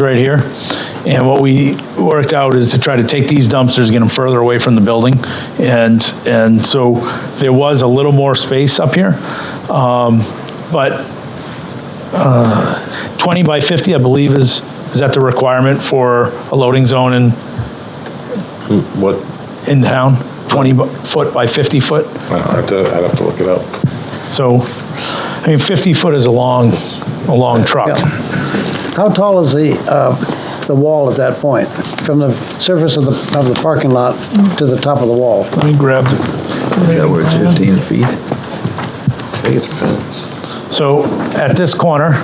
right here. And what we worked out is to try to take these dumpsters, get them further away from the building. And, and so there was a little more space up here. Um, But uh, 20 by 50, I believe, is, is that the requirement for a loading zone in, What, in town? 20 bu- foot by 50 foot? I don't have to, I'd have to look it up. So, I mean, 50 foot is a long, a long truck. How tall is the, uh, the wall at that point, from the surface of the, of the parking lot to the top of the wall? Let me grab, Is that where it's 15 feet? I think it depends. so at this corner,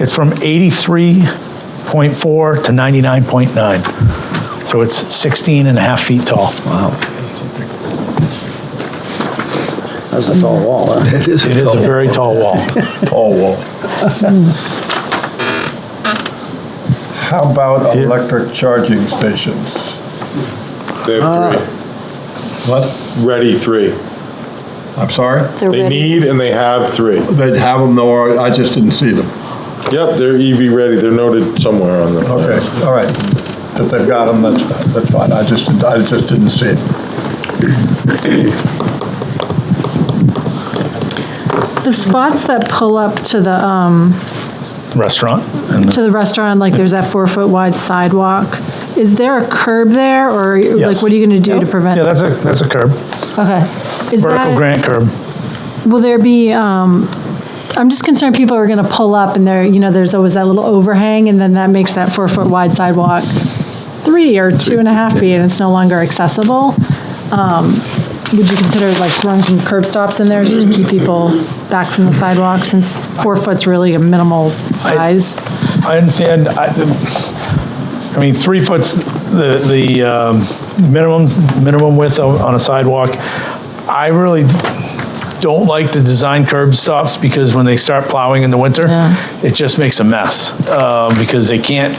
it's from 83.4 to 99.9. So it's 16 and a half feet tall. Wow, That's a tall wall, huh? that is It a is a tall, very tall wall. Oh, tall wall. How about electric charging stations? They have What? three, ready three. I'm sorry? They're They ready. need and they have three. They'd have them, though, I just didn't see them. Yep, they're EV ready, they're noted somewhere on the. Okay, all right. If they've got them, that's, fine. that's fine. I just, I just didn't see it. The spots that pull up to the, um, Restaurant. and- to the restaurant, like there's that four-foot wide sidewalk, is there a curb there, or like, Yes. what are you gonna do to prevent? Yeah, that's a, that's a curb, Okay. Is vertical that, granite curb. will there be, um, I'm just concerned people are gonna pull up and there, you know, there's always that little overhang, and then that makes that four-foot wide sidewalk three or two and a half feet, and it's no longer accessible. Um, Would you consider like throwing some curb stops in there just to keep people back from the sidewalk, since four foot's really a minimal size? I understand, I, I mean, three foot's the, the um, minimum, minimum width on on a sidewalk. I really don't like to design curb stops because when they start plowing in the winter, Yeah. it just makes a mess, uh, because they can't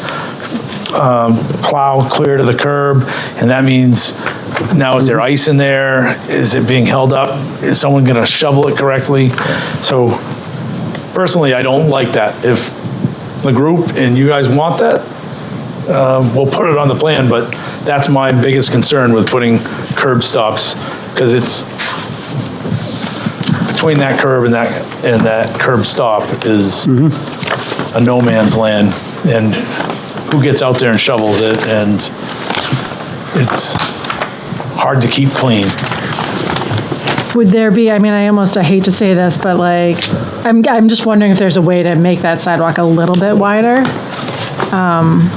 um, plow clear to the curb, and that means now is there ice in there? Is it being held up? Is someone gonna shovel it correctly? So personally, I don't like that. If the group and you guys want that, um, we'll put it on the plan, but that's my biggest concern with putting curb stops, because it's between that curb and that, and that curb stop is a no man's land, and who gets out there and shovels it, and it's hard to keep clean. Would there be, I mean, I almost, I hate to say this, but like, I'm, I'm just wondering if there's a way to make that sidewalk a little bit wider? um,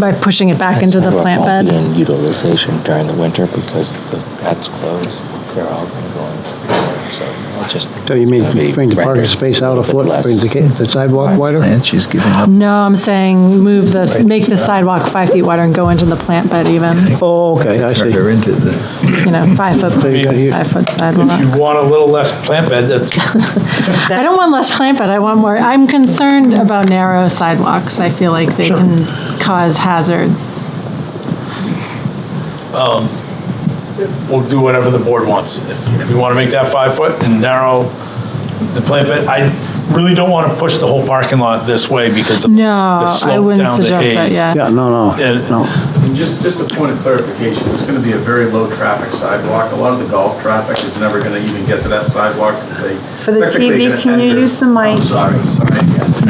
By pushing it back into the Sidewalk plant won't be bed? in utilization during the winter because the, that's closed. They're all going to go in. So I just think So you it's gonna be mean, bring the parking rendered space out a little bit foot, less. bring the ca- the sidewalk wider? And she's giving up. No, I'm saying move this, make the sidewalk five feet wider and go into the plant bed even, Oh, okay, I see. Her into the, you know, five foot, you got here- five foot If sidewalk. you want a little less plant bed, that's, I don't want less plant bed, I want more, I'm concerned about narrow sidewalks. I feel like they can cause hazards. we'll do whatever the board wants. If if you want to make that five foot and narrow the plant bed, I really don't want to push the whole parking lot this way because of No, the I slope wouldn't down to suggest that, Hayes. yeah. Yeah, no, And- no, no. And just, just a point of clarification, it's going to be a very low-traffic sidewalk. A lot of the golf traffic is never going to even get to that sidewalk. For the TV, can you use the mic? I'm sorry, sorry.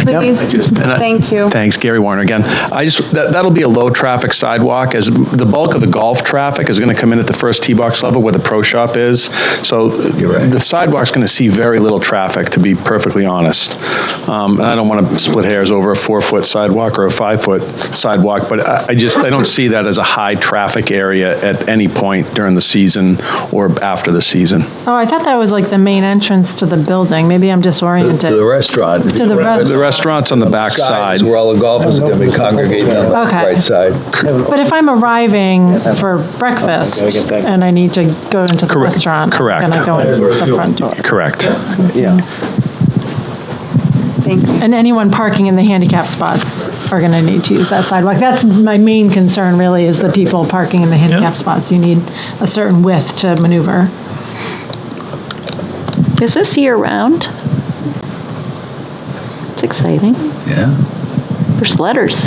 Please, thank you. Thanks, Gary Warner again. I just, that, that'll be a low-traffic sidewalk, as the bulk of the golf traffic is gonna come in at the first tee box level where the pro shop is. So the sidewalk's gonna see very little traffic, to be perfectly honest. Um, and I don't wanna split hairs over a four-foot sidewalk or a five-foot sidewalk, but I, I just, I don't see that as a high-traffic area at any point during the season or after the season. Oh, I thought that was like the main entrance to the building. Maybe I'm to the disoriented. restaurant. To the rest- The The restaurant's on the back side side. is where all the golfers are gonna be congregating on the Okay. right side. But if I'm arriving for breakfast and I need to go into the Correct, restaurant, I'm correct. going to go in the front door. Correct. Thank you. And anyone parking in the handicap spots are going to need to use that sidewalk. That's my main concern really, is the people parking in the handicap spots. You need a certain width to maneuver. Is this year-round? It's exciting. Yeah. first letters.